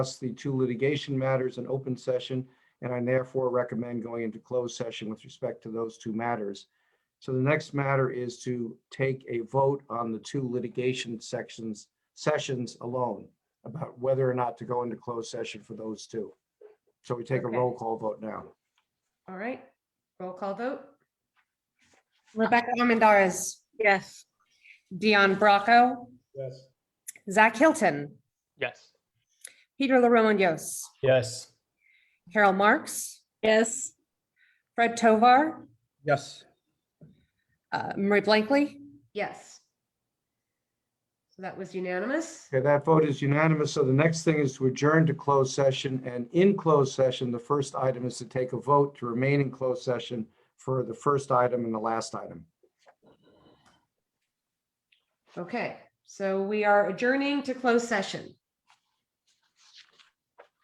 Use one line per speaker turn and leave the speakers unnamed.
discuss the two litigation matters in open session, and I therefore recommend going into closed session with respect to those two matters. So the next matter is to take a vote on the two litigation sections, sessions alone, about whether or not to go into closed session for those two. So we take a
Okay.
roll call vote now.
All right, roll call vote.
Rebecca Armendariz,
Yes.
Dion Bracco,
Yes.
Zach Hilton,
Yes.
Peter Laromondios,
Yes.
Carol Marks,
Yes.
Fred Tovar,
Yes.
uh, Marie Blankley.
Yes. So that was unanimous.
Okay, that vote is unanimous. So the next thing is to adjourn to closed session. And in closed session, the first item is to take a vote to remain in closed session for the first item and the last item.
Okay, so we are adjourning to closed session.